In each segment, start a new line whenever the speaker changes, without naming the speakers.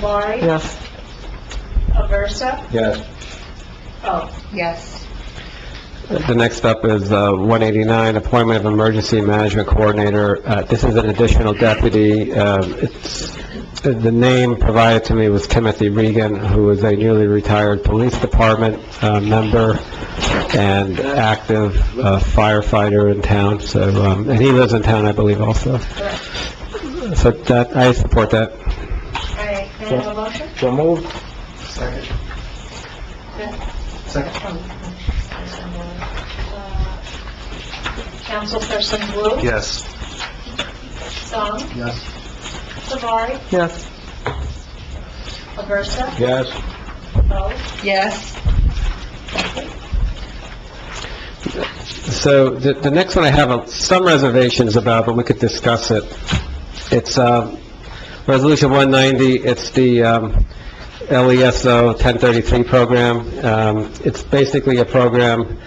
Savari,
Yes.
Aversa,
Yes.
oh,
Yes.
The next up is uh, 189, appointment of emergency management coordinator. Uh, This is an additional deputy. Um, it's- The the name provided to me was Timothy Regan, who is a newly retired police department uh, member and active uh, firefighter in town, so, um, and he lives in town, I believe, also. So that, I support that.
all right, can I have a motion?
So moved. Second. Second.
Oh, Uh, Councilperson Wu?
Yes.
Song,
Yes.
Savari,
Yes.
Aversa,
Yes.
oh,
Yes.
So the, the next one I have uh, some reservations about, but we could discuss it. It's, uh, Resolution 190, it's the, um, LESO 1033 program. Um, it's basically a program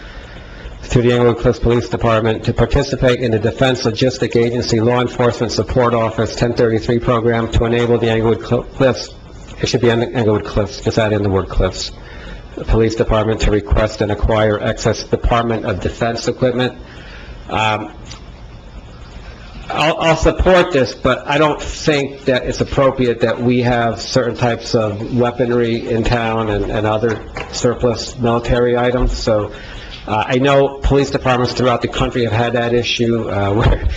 through the Englewood Cliffs Police Department to participate in the Defense Logistic Agency Law Enforcement Support Office 1033 program to enable the Englewood Cl- Cliffs, it should be Eng- Englewood Cliffs, just add in the word Cliffs, Police Department to request and acquire excess Department of Defense equipment. Um, I'll, I'll support this, but I don't think that it's appropriate that we have certain types of weaponry in town and, and other surplus military items, so, uh, I know police departments throughout the country have had that issue, uh, where,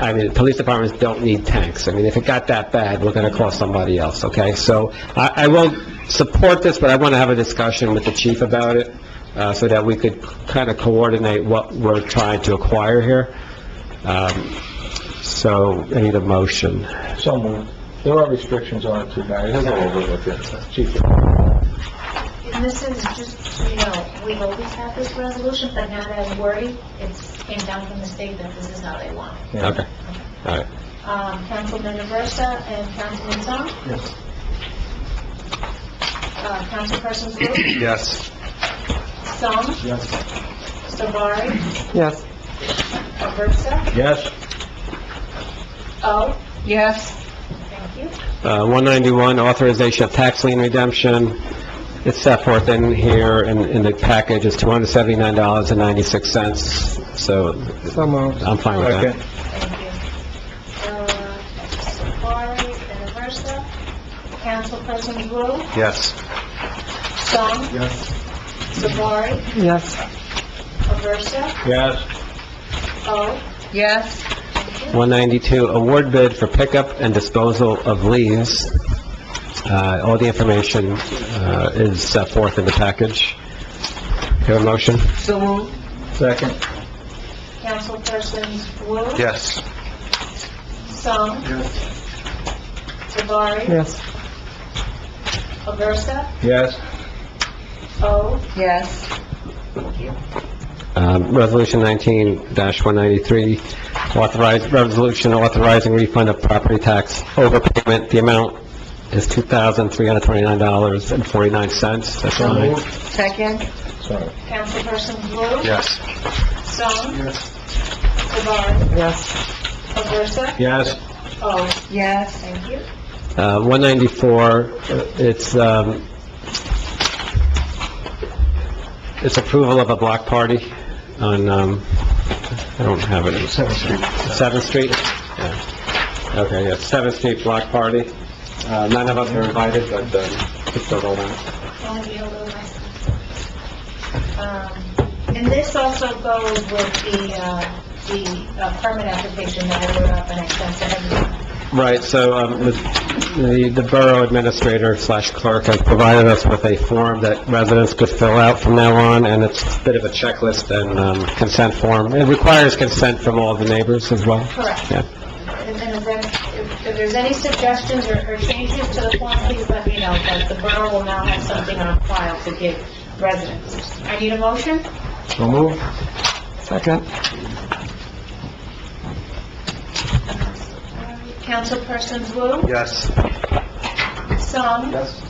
I mean, police departments don't need tanks. I mean, if it got that bad, we're gonna call somebody else, okay? So, I, I will support this, but I wanna have a discussion with the chief about it, uh, so that we could kinda coordinate what we're trying to acquire here. Um, so, I need a motion.
So moved. There are restrictions on it too, Mary. He'll go over it with you. Chief.
and this is just, you know, we've always had this resolution, but now that I'm worried, it's came down from the state that this is how they want it.
Yeah.
Okay. All right.
Um, Councilman Aversa and Councilman Song?
Yes.
Uh, Councilperson Wu,
Yes.
Song,
Yes.
Savari,
Yes.
Aversa,
Yes.
oh,
Yes.
Thank you.
Uh, 191, authorization of tax lien redemption. It's set forth in here, in, in the package, it's $279.96, so
So moved.
I'm fine with that.
Second.
Thank you. Uh, Savari and Aversa. Councilperson Wu,
Yes.
Song,
Yes.
Savari,
Yes.
Aversa,
Yes.
oh,
Yes.
thank you.
192, award bid for pickup and disposal of leaves. Uh, all the information, uh, is set forth in the package. Have a motion?
So moved.
Second.
Councilperson Wu,
Yes.
Song,
Yes.
Savari,
Yes.
Aversa,
Yes.
oh,
Yes.
Um, Resolution 19-193, authorize, resolution authorizing refund of property tax overpayment. The amount is $2,329.49. That's
So
all right.
moved.
Second.
Sorry.
Councilperson Wu,
Yes.
Song,
Yes.
Savari,
Yes.
Aversa,
Yes.
oh,
Yes.
thank you.
Uh, 194, uh, it's, um, it's approval of a block party on, um, I don't have it.
Seventh Street.
7th Street? Yeah. Okay, yeah, 7th Street Block Party. Uh, None of us are invited, but um, it's still going on.
Only be a little less. Um, And this also goes with the, uh, the uh, permit application that I wrote up and I sent to everyone.
Right, so um, the the borough administrator slash clerk has provided us with a form that residents could fill out from now on, and it's a bit of a checklist and um, consent form. It requires consent from all the neighbors as well.
Correct.
Yeah.
And then if there- if if there's any suggestions or or changes to the form, please let me know, but the borough will now have something on file to give residents. I need a motion?
So moved.
Second.
Councilperson Wu,
Yes.
Song,
Yes.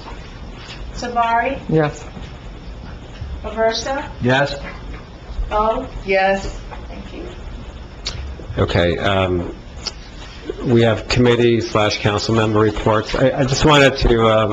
Savari,
Yes.
Aversa,
Yes.
Oh,
Yes.
thank you.
Okay, um, we have committee slash council member reports. I I just wanted to um,